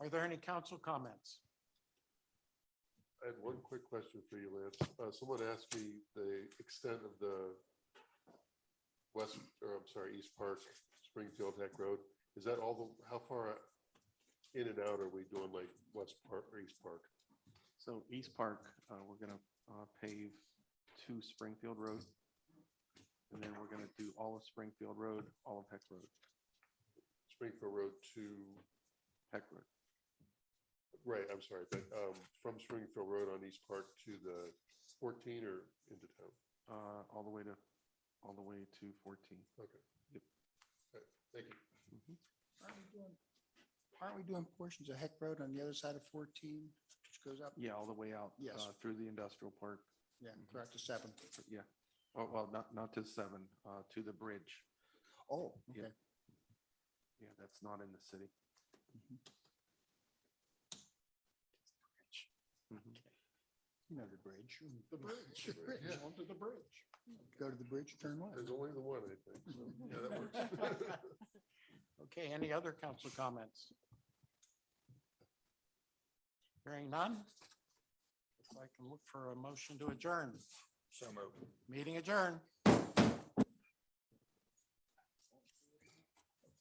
Are there any council comments? I had one quick question for you, Lance. Uh, someone asked me the extent of the west, or I'm sorry, East Park, Springfield Tech Road. Is that all the, how far in and out are we doing like West Park or East Park? So East Park, uh, we're gonna, uh, pave to Springfield Road. And then we're gonna do all of Springfield Road, all of Heck Road, Springfield Road to, Heck Road. right, I'm sorry, but, um, from Springfield Road on East Park to the fourteen or into town? uh, all the way to, all the way to 14. Okay. Yep. All right, Thank you. Aren't we doing- Aren't we doing portions of Heck Road on the other side of 14, which goes up? Yeah, all the way out. Yes. uh, Through the industrial park, Yeah, correct, to 7. yeah. Oh, well, not, not to seven, uh, to the bridge. Oh, Yeah. okay. Yeah, that's not in the city. Mhm. You know the bridge. The bridge. The bridge, Yeah. onto the bridge. Go to the bridge, turn left. There's only the one, I think. so, Yeah, that works. Okay, any other council comments? Hearing none? If I can look for a motion to adjourn. So moved. Meeting adjourned.